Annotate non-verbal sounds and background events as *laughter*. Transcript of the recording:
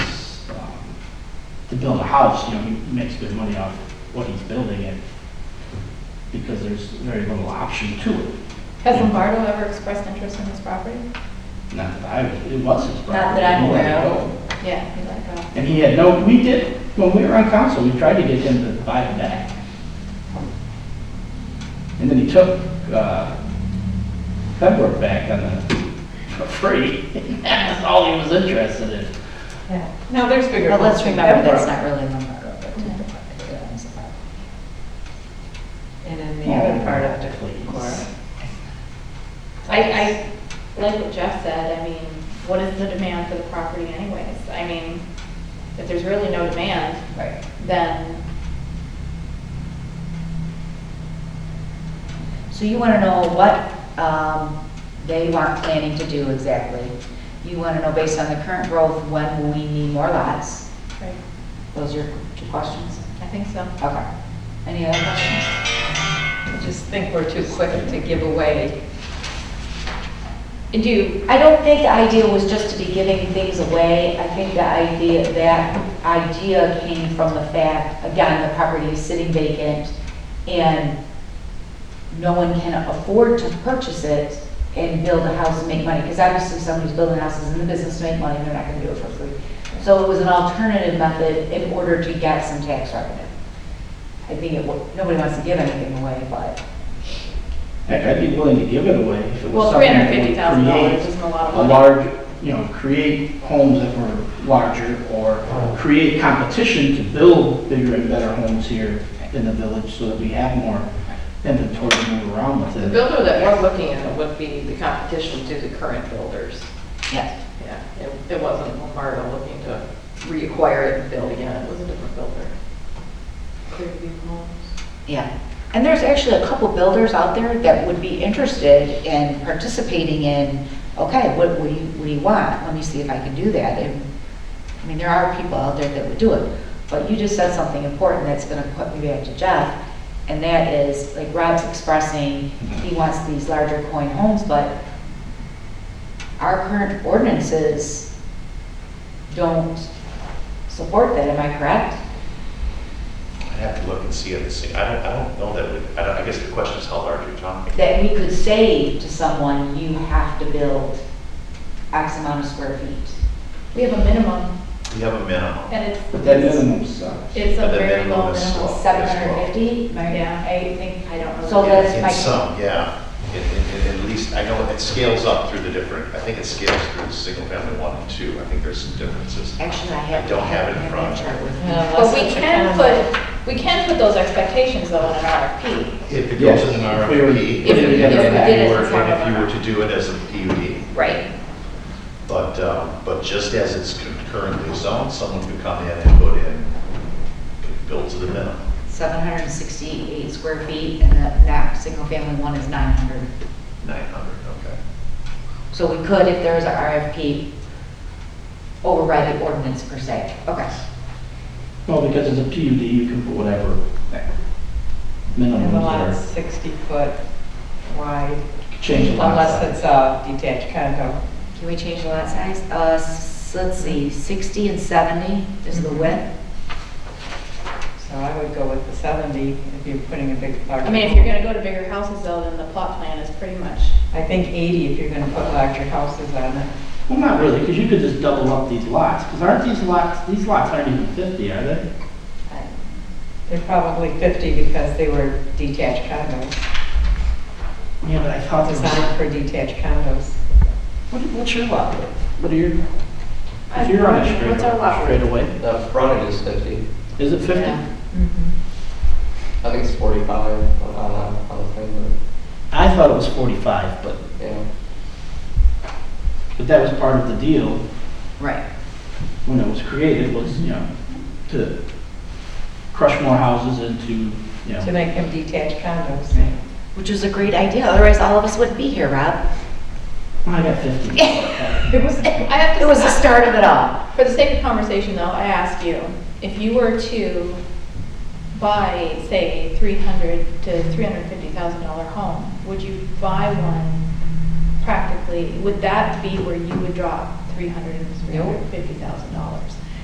to build a house, you know, he makes good money off what he's building and because there's very little option to it. Has Lombardo ever expressed interest in this property? Not that I, it was his property. Not that I'm aware of. Yeah, he's like, oh, And he had no, we did, when we were on council, we tried to get him to buy it back. And then he took, uh, Pembroke back on the, *laughs* for free. *laughs* That's all he was interested in. Yeah. Now, there's bigger. But let's ones. remember, that's not really Lombardo, but to the park, yeah, it's about- And then the other part of the Please. Cora. I, I, like what Jeff said, I mean, what is the demand for the property anyways? I mean, if there's really no demand, Right. then, So you want to know what um, they want planning to do exactly. You want to know based on the current growth, when will we need more lots? right, Those are your two questions? I think so. Okay. Any other questions? I just think we're too quick to give away. Do you, I don't think the idea was just to be giving things away. I think the idea, that idea came from the fact, again, the property is sitting vacant and no one can afford to purchase it and build a house and make money. Because obviously somebody who's building houses in the business to make money, they're not gonna do it for free. So it was an alternative method in order to get some tax revenue. I think it, wa- nobody wants to give anything away, but Heck, I'd be willing to give it away if it was Well, three something hundred that would fifty thousand create dollars isn't a lot a of money. large, you know, create homes that were larger or create competition to build bigger and better homes here in the village so that we have more inventory to move around with The it. builder that we're looking at would be the competition to the current builders. yes. Yeah, it, it wasn't Lombardo looking to reacquire it and build again, it was a different builder. Clearview Homes. Yeah, and there's actually a couple builders out there that would be interested in participating in, okay, what, what do you, what do you want? Let me see if I can do that. And, I mean, there are people out there that would do it, but you just said something important that's gonna put me back to Jeff, and that is, like Rob's expressing, he wants these larger coin homes, but our current ordinances don't support that, am I correct? I'd have to look and see if it's, I don't, I don't know that, we- I don't- I guess the question is how large you're talking. that we could say to someone, you have to build X amount of square feet. We have a minimum, We have a minimum. and it's, But that minimum sucks. it's a But the very minimum low is minimum. slow. Seven hundred fifty? Yeah, I think, I don't know. So the- that's In my- some, yeah. In- in- in- At least, I know it scales up through the different, I think it scales through the single family one and two. I think there's some differences. Actually, I have. I don't have it in front. that chart with me. Yeah. But we can put, we can put those expectations though in an RFP. If it Yes, goes in an if we were- RFP, if we and did it if as you a were- form of and if you an were to do it as a PUD, Right. but, um, but just as it's currently zoned, someone could come in and put in, could build to the minimum. Seven hundred and sixty-eight square feet, and that, that single family one is nine hundred. 900, okay. So we could, if there is an RFP, override the ordinance per se. Okay. Well, because it's a PUD, you can put whatever And the lot's minimums 60 foot wide, or change the lot unless size. it's a detached condo. Can we change the lot size? Uh, s- let's see, sixty and seventy is the width. So I would go with the 70 if you're putting a big. I mean, if you're gonna go to bigger houses though, then the plot plan is pretty much I think 80 if you're going to put larger houses on it. Well, not really, because you could just double up these lots, because aren't these lots, these lots aren't even 50, are they? They're probably 50 because they were detached condos, Yeah, but I thought there was, designed for detached condos. what, what's your lot width? What are your, I- if you're on a what's our lot straight, width? straight away, The frontage is 50. is it 50? Yeah. I think it's 45 on, on, on the thing, I thought it was 45, but, but, yeah. but that was part of the deal Right. when it was created, was, you know, to crush more houses into, you To know, make them detached condos. Which is a great idea, otherwise all of us wouldn't be here, Rob. I got 50. *laughs* It was, *laughs* I have to. It was the start of it all. For the sake of conversation though, I ask you, if you were to buy, say, three hundred to three hundred fifty thousand dollar home, would you buy one practically, would that be where you would drop three hundred to three hundred fifty thousand dollars?